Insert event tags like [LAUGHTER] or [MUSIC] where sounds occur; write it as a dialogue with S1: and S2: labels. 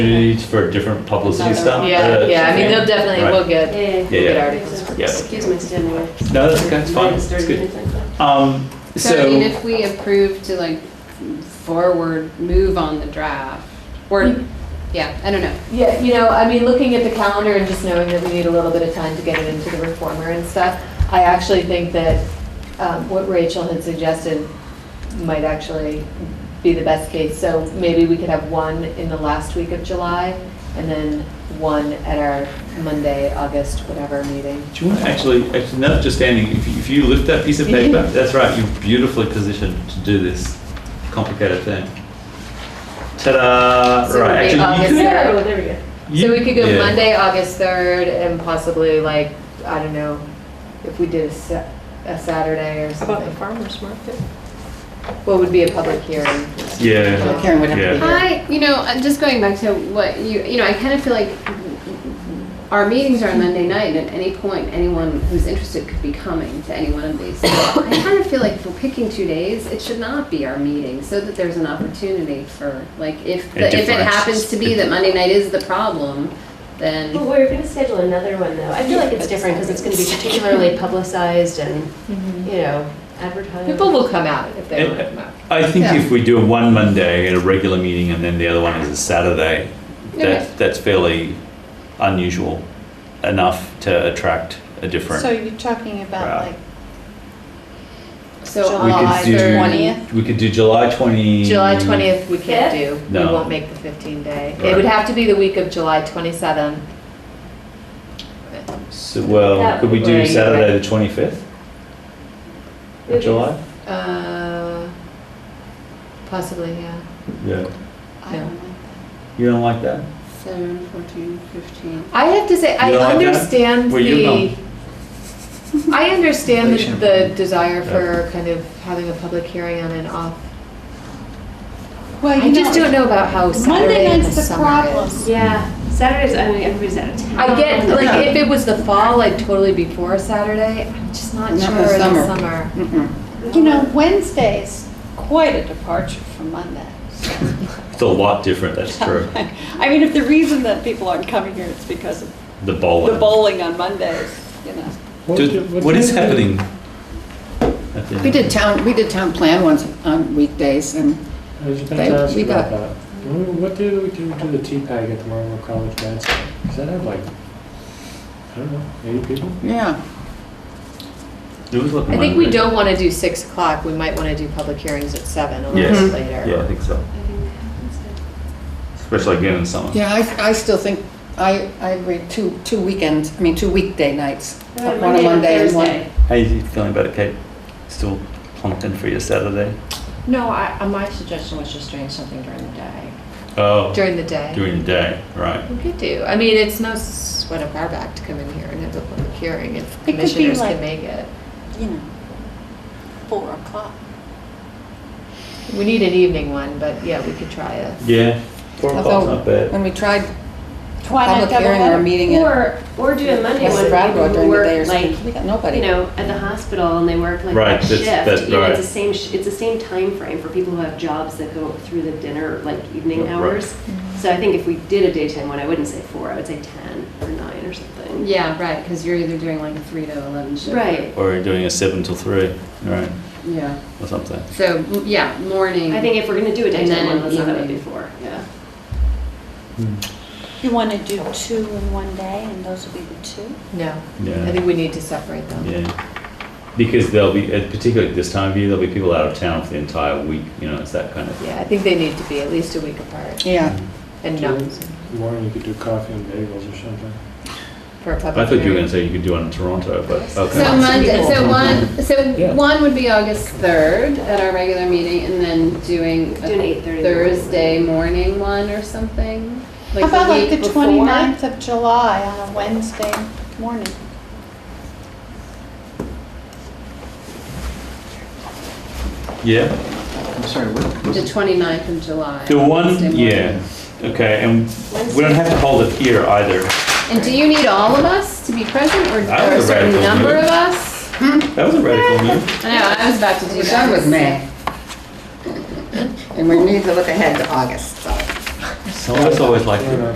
S1: page for different publicity stuff?
S2: Yeah,
S1: Uh,
S2: yeah, I mean, they'll definitely, we'll
S1: Right.
S2: get,
S3: Yeah.
S1: Yeah,
S2: we'll get
S1: yeah.
S2: articles.
S1: Yeah.
S3: Excuse my standing there.
S1: No, that's okay, it's fine,
S3: Minus
S1: it's
S3: 30
S1: good.
S3: minutes, I thought.
S1: Um,
S4: So I mean,
S1: so,
S4: if we approve to like forward move on the draft,
S1: Mm-hmm.
S4: or, yeah, I don't know.
S5: Yeah, you know, I mean, looking at the calendar and just knowing that we need a little bit of time to get it into the reformer and stuff, I actually think that um, what Rachel had suggested might actually be the best case. So maybe we could have one in the last week of July and then one at our Monday, August, whatever meeting.
S1: do you want to actually, actually, now that you're standing, if you, if you lift that piece of paper, that's right, you're beautifully positioned to do this complicated thing. Ta-da,
S5: So
S1: right,
S5: it'll
S1: actually,
S5: be
S1: you
S5: August
S1: could-
S5: third.
S3: Oh, there we go.
S1: you-
S5: So we could go
S1: yeah.
S5: Monday, August 3rd and possibly like, I don't know, if we did a Sa- a Saturday or
S3: How about the
S5: something.
S3: farmer's market?
S5: What would be a public hearing?
S1: Yeah,
S6: Karen would have to be
S1: Yeah.
S6: here.
S4: I, you know, I'm just going back to what you, you know, I kind of feel like our meetings are on Monday night, and at any point, anyone who's interested could be coming to any one of these. So I kind of feel like if we're picking two days, it should not be our meeting, so that there's an opportunity for, like, if,
S1: A
S4: if it
S1: difference.
S4: happens to be that Monday night is the problem, then.
S3: Well, we're gonna schedule another one though. I feel like it's different because it's gonna be
S1: [LAUGHS]
S3: particularly publicized and, you know, advertised.
S5: People will come out if they
S1: And- uh,
S5: want to come out.
S1: I think
S4: Yeah.
S1: if we do one Monday at a regular meeting and then the other one is a Saturday,
S4: Okay.
S1: that, that's fairly unusual enough to attract a different.
S7: So you're talking about
S1: Right.
S7: like
S4: So
S1: We could
S7: July
S1: do-
S7: 20th?
S1: We could do July twenty.
S5: July 20th, we can't do. We
S1: No.
S5: won't make the 15 day.
S1: Right.
S5: It would have to be the week of July 27th.
S1: So, well, could we do
S5: Right.
S1: Saturday the twenty-fifth
S3: Okay.
S1: of July?
S5: Uh, Possibly, yeah.
S1: Yeah.
S4: I don't know.
S1: You don't like that?
S4: 7, 14, 15.
S5: I have to say, I
S1: You don't like that?
S5: understand
S1: Well, you
S5: the, I understand
S1: Relation.
S5: the- the desire for kind of having a public hearing on and off.
S7: Well, you
S5: I just
S7: know,
S5: don't know about how
S7: Monday
S5: Saturday in the
S7: night's the
S5: summer
S7: problem.
S5: is.
S3: Yeah, Saturdays, I mean, everybody's out of town.
S5: I get, like, if it was the fall, I'd totally be for Saturday. I'm just not
S6: Not
S5: sure
S6: the
S5: in the
S6: summer.
S5: summer.
S6: Mm-mm.
S7: You know, Wednesday's quite a departure from Monday.
S1: It's a lot different, that's true.
S7: I mean, if the reason that people aren't coming here is because of
S1: The
S7: the
S1: bowling.
S7: bowling on Mondays, you know.
S1: Do- What is happening? at the-
S6: We did town, we did town plan once on weekdays and
S8: I was about
S6: They-
S8: to ask
S6: we
S8: you about
S6: got-
S8: that. What what did we do to the tea bag at the Marlboro College dance? Does that have like, I don't know, 80 people?
S6: yeah,
S1: It was like
S5: I think we
S1: Monday.
S5: don't want to do six o'clock, we might want to do public hearings at seven, a
S1: Yes.
S5: little bit later.
S1: Yeah, I think so. Especially again in summer.
S6: yeah, I, I still think, I, I agree, two, two weekends, I mean, two weekday nights.
S3: Uh,
S6: One
S3: Monday
S6: on
S3: and
S6: Monday and
S3: Thursday.
S6: one.
S1: How you feeling about it, Kate? Still plonking for your Saturday?
S9: No, I, uh, my suggestion was just doing something during the day.
S1: Oh,
S5: During the day.
S1: during the day, right.
S5: We could do, I mean, it's no sweat of our back to come in here and have a public hearing if
S7: be
S5: commissioners
S7: like-
S5: can make it.
S7: You know, four o'clock.
S5: We need an evening one, but yeah, we could try a.
S1: Yeah, four o'clock's
S6: Although-
S1: not bad.
S6: When we tried
S7: Why not
S6: public
S7: double
S6: hearing or
S7: header?
S6: a meeting at
S3: Or, or do a Monday
S6: West
S3: one,
S6: Brattleboro
S3: people who
S6: during the day or
S3: work
S6: something,
S3: like,
S6: we got nobody.
S3: you know, at the hospital and they work like
S1: Right,
S3: that
S1: that's-
S3: shift.
S1: that's
S3: you know,
S1: right.
S3: It's the same, sh- it's the same time frame for people who have jobs that go through the dinner, like evening
S1: Yeah, right.
S3: hours.
S6: Mm-hmm.
S3: So I think if we did a daytime one, I wouldn't say four, I would say 10 or nine or something.
S4: Yeah, right, because you're either doing like a 3 to 11 shift.
S3: Right.
S1: Or doing a seven till three, right,
S4: Yeah.
S1: or something.
S4: So, m- yeah, morning.
S3: I think if we're going to do a
S4: And
S3: daytime
S4: then
S3: one,
S4: an
S3: let's not have it
S4: evening.
S3: before, yeah.
S1: Hmm.
S7: You want to do two in one day and those will be the two?
S5: No,
S1: Yeah.
S5: I think we need to separate them.
S1: Yeah, because there'll be, and particularly this time of year, there'll be people out of town for the entire week, you know, it's that kind of thing.
S5: Yeah, I think they need to be at least a week apart
S6: Yeah,
S5: and not
S8: Morning, you could do coffee and bagels or something.
S5: for a
S1: I
S5: public
S1: thought you were
S5: hearing.
S1: gonna say you could do one in Toronto, but,
S4: So
S1: okay.
S4: Monday, so one,
S8: Yeah.
S4: so one would be August 3rd at our regular meeting, and then doing
S3: Do an
S4: a
S3: 8:30.
S4: Thursday morning one or something?
S7: How about like the
S4: week before?
S7: 29th of July on a Wednesday morning?
S1: Yeah,
S6: I'm sorry, what?
S4: The 29th of July.
S1: the
S4: Wednesday
S1: one,
S4: morning.
S1: yeah, okay, and we don't have to hold it here either.
S4: And do you need all of us to be present, or
S1: I
S4: or a
S1: was
S4: certain
S1: radical
S4: number
S1: move.
S4: of us?
S1: That was a radical move.
S4: I know, I was about to do that.
S6: We're done with May. And we need to look ahead to August, so.
S1: Some of us always like.
S8: No, no,